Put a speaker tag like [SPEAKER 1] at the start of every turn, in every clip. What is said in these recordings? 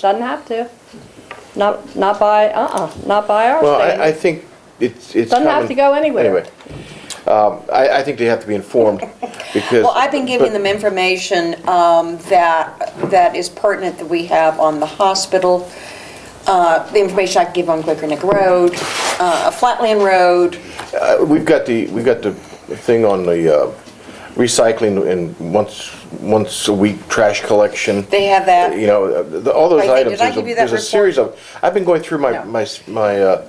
[SPEAKER 1] Doesn't have to. Not, not by, uh-uh, not by our
[SPEAKER 2] Well, I, I
[SPEAKER 1] standards.
[SPEAKER 2] think it's, it's.
[SPEAKER 1] Doesn't have
[SPEAKER 2] common-
[SPEAKER 1] to go anywhere.
[SPEAKER 2] Anyway, um, I, I think they have to be informed because.
[SPEAKER 3] Well, I've been giving them information um, that, that is pertinent that we have on the hospital, uh, the information I can give on Quaker Neck Road, uh, Flatland Road,
[SPEAKER 2] Uh, We've got the, we've got the thing on the uh, recycling and once, once a week trash collection.
[SPEAKER 3] they have that.
[SPEAKER 2] You know, uh, the- all those
[SPEAKER 3] Right,
[SPEAKER 2] items,
[SPEAKER 3] did I
[SPEAKER 2] there's a-
[SPEAKER 3] give you that
[SPEAKER 2] there's a
[SPEAKER 3] report?
[SPEAKER 2] series of, I've been going through my,
[SPEAKER 3] No.
[SPEAKER 2] my, s- my, uh,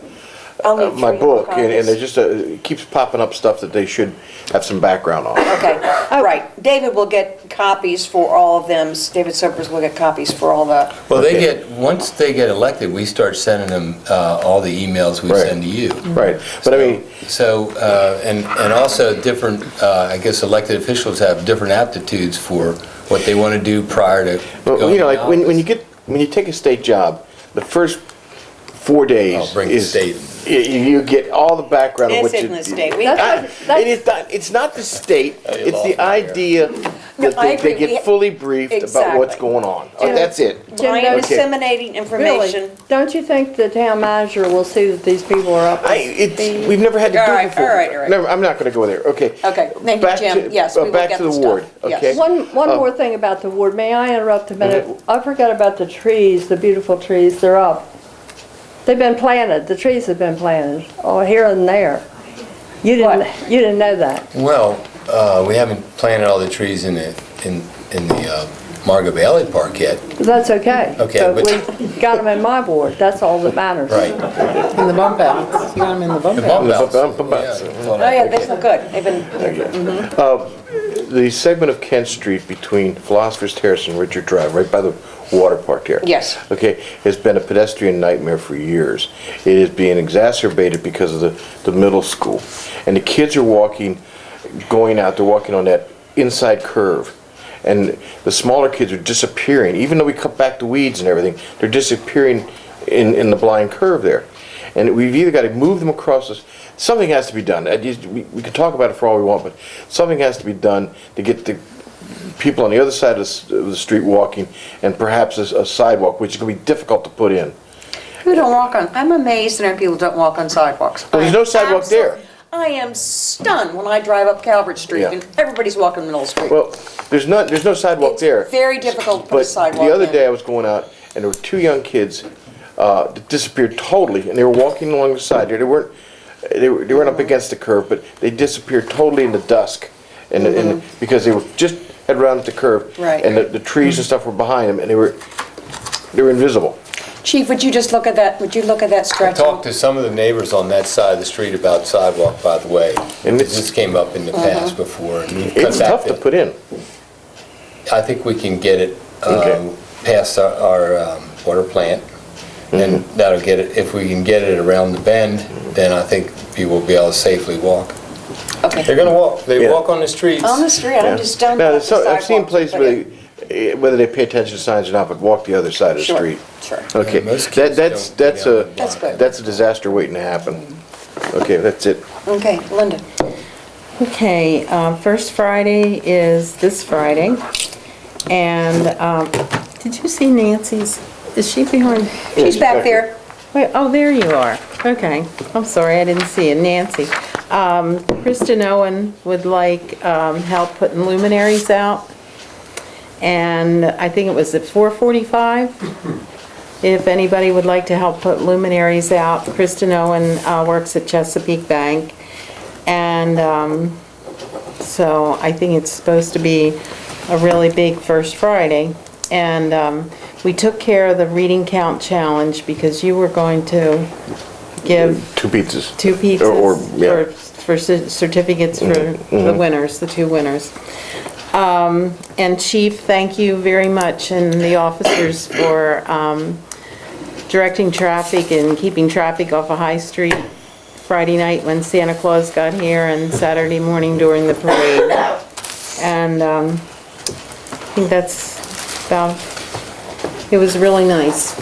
[SPEAKER 3] I'll
[SPEAKER 2] uh,
[SPEAKER 3] need
[SPEAKER 2] my
[SPEAKER 3] three more
[SPEAKER 2] book and, and
[SPEAKER 3] copies.
[SPEAKER 2] it just, uh, it keeps popping up stuff that they should have some background on.
[SPEAKER 3] Okay,
[SPEAKER 1] Oh.
[SPEAKER 3] all right. David will get copies for all of them. David Sobers will get copies for all the,
[SPEAKER 4] Well, they
[SPEAKER 2] Okay.
[SPEAKER 4] get, once they get elected, we start sending them uh, all the emails we
[SPEAKER 2] Right.
[SPEAKER 4] send to you.
[SPEAKER 2] Right, but I mean,
[SPEAKER 4] So, uh, and, and also different, uh, I guess elected officials have different aptitudes for what they want to do prior to
[SPEAKER 2] Well,
[SPEAKER 4] going
[SPEAKER 2] you know,
[SPEAKER 4] to
[SPEAKER 2] like when, when you
[SPEAKER 4] office.
[SPEAKER 2] get when you take a state job, the first four
[SPEAKER 4] Oh,
[SPEAKER 2] days
[SPEAKER 4] bring the
[SPEAKER 2] is
[SPEAKER 4] state.
[SPEAKER 2] y- You, get all the background
[SPEAKER 3] This
[SPEAKER 2] of what
[SPEAKER 3] isn't
[SPEAKER 2] you,
[SPEAKER 3] the state. We-
[SPEAKER 2] I-
[SPEAKER 1] That's what- that's-
[SPEAKER 2] it is not, it's not the state.
[SPEAKER 4] Oh, you
[SPEAKER 2] It's
[SPEAKER 4] lost
[SPEAKER 2] the
[SPEAKER 4] me there.
[SPEAKER 2] idea that
[SPEAKER 3] I
[SPEAKER 2] they, they
[SPEAKER 3] agree.
[SPEAKER 2] get fully briefed about what's
[SPEAKER 3] Exactly.
[SPEAKER 2] going on. Oh, that's it.
[SPEAKER 1] Jim,
[SPEAKER 3] Brian
[SPEAKER 1] those-
[SPEAKER 3] disseminating
[SPEAKER 1] Really,
[SPEAKER 3] information.
[SPEAKER 1] don't you think the town manager will see that these people are up?
[SPEAKER 2] I, it's, we've never had to do
[SPEAKER 3] All
[SPEAKER 2] it
[SPEAKER 3] right,
[SPEAKER 2] before.
[SPEAKER 3] all right, all right.
[SPEAKER 2] Never- I'm not going to go there. Okay.
[SPEAKER 3] Okay, thank you,
[SPEAKER 2] Back
[SPEAKER 3] Jim.
[SPEAKER 2] to-
[SPEAKER 3] Yes,
[SPEAKER 2] uh,
[SPEAKER 3] we will
[SPEAKER 2] back
[SPEAKER 3] get
[SPEAKER 2] to
[SPEAKER 3] the
[SPEAKER 2] the
[SPEAKER 3] stuff.
[SPEAKER 2] ward.
[SPEAKER 3] Yes.
[SPEAKER 2] Okay.
[SPEAKER 1] One, one
[SPEAKER 2] Um,
[SPEAKER 1] more thing about the ward, may I interrupt a minute? I forgot about the trees, the beautiful trees, they're up. They've been planted, the trees have been planted, oh, here and there. You didn't,
[SPEAKER 3] What?
[SPEAKER 1] you didn't know that.
[SPEAKER 4] Well, uh, we haven't planted all the trees in the, in in the uh, Margot Valley Park yet.
[SPEAKER 1] That's okay.
[SPEAKER 4] Okay,
[SPEAKER 1] But
[SPEAKER 4] but-
[SPEAKER 1] we got them in my ward, that's all that matters.
[SPEAKER 5] In the bump outs. You got 'em in the bump
[SPEAKER 4] The
[SPEAKER 5] outs.
[SPEAKER 4] bump outs.
[SPEAKER 2] bump- bump outs.
[SPEAKER 4] Yeah.
[SPEAKER 3] Oh, yeah, they look good. They've been,
[SPEAKER 2] Uh, The segment of Kent Street between Philosopher's Terrace and Richard Drive, right by the water park there.
[SPEAKER 3] Yes.
[SPEAKER 2] Okay, has been a pedestrian nightmare for years. It is being exacerbated because of the, the middle school. And the kids are walking, going out, they're walking on that inside curve. And the smaller kids are disappearing, even though we cut back the weeds and everything, they're disappearing in, in the blind curve there. And we've either got to move them across this, something has to be done. I just- We we can talk about it for all we want, but something has to be done to get the people on the other side of s- of the street walking and perhaps a s- a sidewalk, which is going to be difficult to put in.
[SPEAKER 3] who don't walk on, I'm amazed that people don't walk on sidewalks.
[SPEAKER 2] Well, there's no sidewalk
[SPEAKER 3] Absol-
[SPEAKER 2] there.
[SPEAKER 3] I am stunned when I drive up Calvert Street
[SPEAKER 2] Yeah.
[SPEAKER 3] and everybody's walking the middle street.
[SPEAKER 2] Well, there's not, there's no sidewalk
[SPEAKER 3] It's
[SPEAKER 2] there.
[SPEAKER 3] very difficult to put a sidewalk
[SPEAKER 2] But the other
[SPEAKER 3] in.
[SPEAKER 2] day, I was going out, and there were two young kids uh, that disappeared totally, and they were walking along the side there. They weren't, they were- they weren't up against the curve, but they disappeared totally in the dusk, and, and, because they were just, had rounded the curve.
[SPEAKER 3] Mm-hmm. Right.
[SPEAKER 2] And the- the trees and stuff were behind them, and they were, they were invisible.
[SPEAKER 3] Chief, would you just look at that, would you look at that stretch?
[SPEAKER 4] Talked to some of the neighbors on that side of the street about sidewalk, by the way.
[SPEAKER 2] And it's- Mm-hmm.
[SPEAKER 4] This came up in the past before. and we've cut
[SPEAKER 2] It's
[SPEAKER 4] back
[SPEAKER 2] tough to
[SPEAKER 4] the-
[SPEAKER 2] put in.
[SPEAKER 4] I think we can get it
[SPEAKER 2] Okay.
[SPEAKER 4] um, past our- our um, water plant, and that'll get it, if we can get it around the bend, then I think people will be able to safely walk. They're
[SPEAKER 3] Okay.
[SPEAKER 4] gonna walk, they
[SPEAKER 2] Yeah.
[SPEAKER 4] walk on the streets.
[SPEAKER 3] On the street, I'm
[SPEAKER 2] Yeah.
[SPEAKER 3] just stunned.
[SPEAKER 2] Now,
[SPEAKER 3] about the
[SPEAKER 2] so- I've seen
[SPEAKER 3] sidewalks,
[SPEAKER 2] places
[SPEAKER 3] but
[SPEAKER 2] where,
[SPEAKER 3] it-
[SPEAKER 2] they- eh, whether they pay attention to signs or not, but walk the other side of the
[SPEAKER 3] Sure,
[SPEAKER 2] street.
[SPEAKER 3] sure.
[SPEAKER 2] Okay,
[SPEAKER 4] Yeah, most
[SPEAKER 2] that,
[SPEAKER 4] kids
[SPEAKER 2] that's,
[SPEAKER 4] don't
[SPEAKER 2] that's
[SPEAKER 4] get out
[SPEAKER 2] a,
[SPEAKER 4] of the That's
[SPEAKER 3] block. good.
[SPEAKER 2] that's a disaster waiting to happen. Okay, that's it.
[SPEAKER 3] Okay, Linda.
[SPEAKER 5] Okay, um, first Friday is this Friday. And, um, did you see Nancy's? Is she behind?
[SPEAKER 3] She's back there.
[SPEAKER 5] Wait, oh, there you are. Okay, I'm sorry, I didn't see you, Nancy. Um, Kristen Owen would like, um, help putting luminaries out. And I think it was at 4:45. If anybody would like to help put luminaries out, Kristen Owen, uh, works at Chesapeake Bank. And, um, so I think it's supposed to be a really big First Friday. And um, we took care of the reading count challenge because you were going to give
[SPEAKER 2] Two pizzas.
[SPEAKER 5] two
[SPEAKER 2] Or- or,
[SPEAKER 5] pizzas
[SPEAKER 2] yeah. Mm-hmm.
[SPEAKER 5] for- for cer- certificates for the winners, the two winners. Um, And Chief, thank you very much, and the officers for um, directing traffic and keeping traffic off of High Street Friday night when Santa Claus got here and Saturday morning during the parade. And um, I think that's about, it was really nice,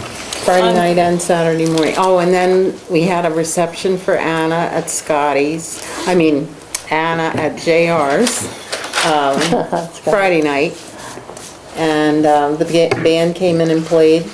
[SPEAKER 5] Friday night and Saturday morning. Oh, and then we had a reception for Anna at Scotty's, I mean, Anna at JR's um, Friday night. And um, the ba- band came in and played